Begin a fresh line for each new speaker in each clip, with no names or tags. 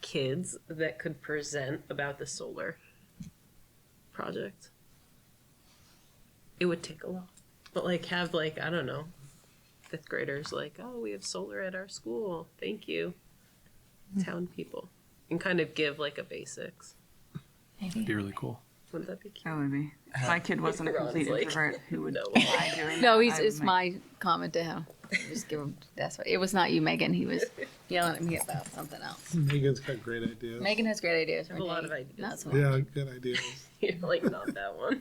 kids that could present about the solar project. It would take a lot. But like have like, I don't know, fifth graders like, oh, we have solar at our school. Thank you. Town people. And kind of give like a basics.
That'd be really cool.
Wouldn't that be cute?
That would be.
Uh,
If my kid wasn't a
Ron's
complete
like,
introvert, who would
no.
die doing
No,
that,
he's,
I would
it's
make-
my comment to him. Just give him. That's what. It was not you, Megan. He was yelling at me about something else.
Megan's got great ideas.
Megan has great ideas. I
have a lot of ideas.
Not so much.
Yeah, good ideas.
You're like not that one.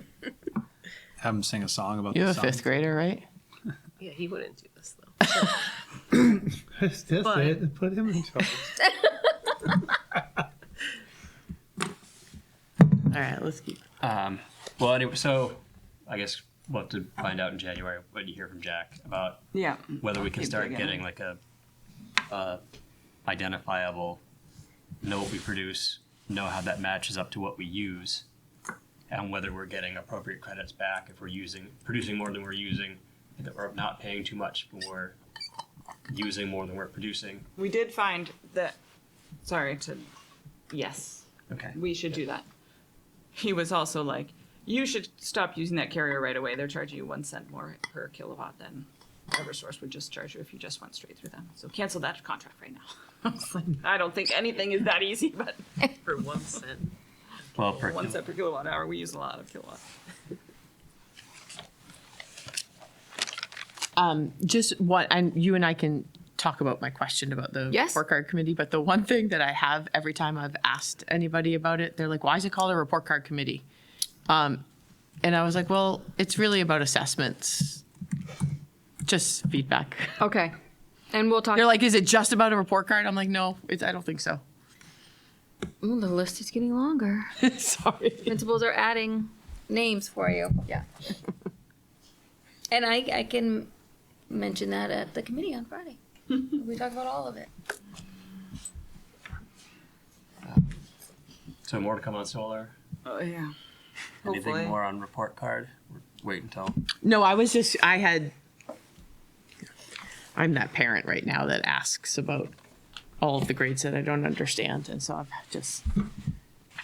Have them sing a song about
You're
the
a
sun.
fifth grader, right?
Yeah, he wouldn't do this though.
That's
But-
it. Put him in charge.
All right, let's keep.
Um, well, anyway, so I guess we'll have to find out in January what you hear from Jack about
Yeah.
whether we can
Keep
start
digging.
getting like a uh, identifiable, know what we produce, know how that matches up to what we use, and whether we're getting appropriate credits back if we're using producing more than we're using, and that we're not paying too much when we're using more than we're producing.
We did find that. Sorry to. Yes,
Okay.
we should do that. He was also like, you should stop using that carrier right away. They're charging you one cent more per kilowatt than Eversource would just charge you if you just went straight through them. So cancel that contract right now. I was like, I don't think anything is that easy, but
For one cent.
Well, per
one cent per kilowatt hour, we use a lot of kilowatt.
Just what, and you and I can talk about my question about the
Yes.
report card committee. But the one thing that I have every time I've asked anybody about it, they're like, "Why is it called a report card committee?" Um, and I was like, "Well, it's really about assessments, just feedback."
Okay, and we'll talk.
They're like, "Is it just about a report card?" I'm like, "No, it's, I don't think so."
Ooh, the list is getting longer.
Sorry.
Principals are adding names for you. Yeah. and I, I can mention that at the committee on Friday. we talk about all of it.
so more to come on solar.
Oh yeah.
Anything
Hopefully.
more on report card? Wait until.
No, I was just, I had, I'm that parent right now that asks about all of the grades that I don't understand. And so I've just,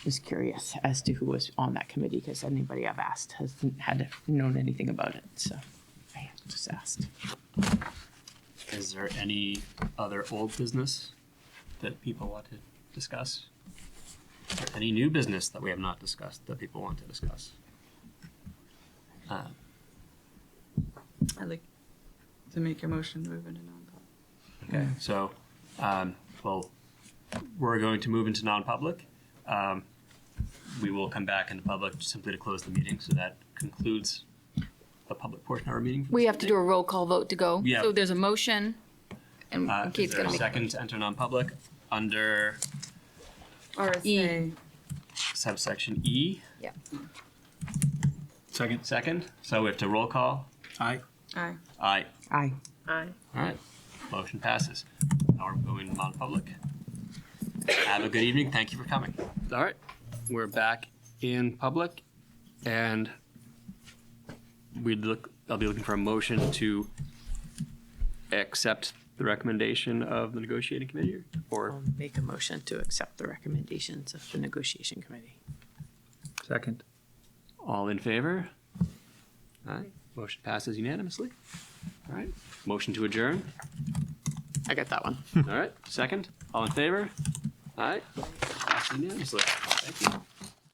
was curious as to who was on that committee because anybody I've asked hasn't had known anything about it. So I just asked.
Is there any other old business that people want to discuss? Is there any new business that we have not discussed that people want to discuss? Uh,
I like to make a motion to move into non-public.
okay, so, um, well, we're going to move into non-public. Um, we will come back into public simply to close the meeting, so that concludes the public portion of our meeting.
We have to do a roll call vote to go.
Yeah.
So there's a motion, and
Uh, is
Kate's
there
gonna
a
make.
second to enter non-public under
RSA.
subsection E?
Yeah.
Second.
Second, so we have to roll call.
Aye.
Aye.
Aye.
Aye.
I
All right, motion passes. Now we're going non-public. Have a good evening, thank you for coming. All right, we're back in public, and we'd look, I'll be looking for a motion to accept the recommendation of the negotiating committee, or
I'll make a motion to accept the recommendations of the negotiation committee.
Second.
all in favor? All right, motion passes unanimously. All right, motion to adjourn,
I got that one.
all right, second, all in favor? All right, passes unanimously, thank you.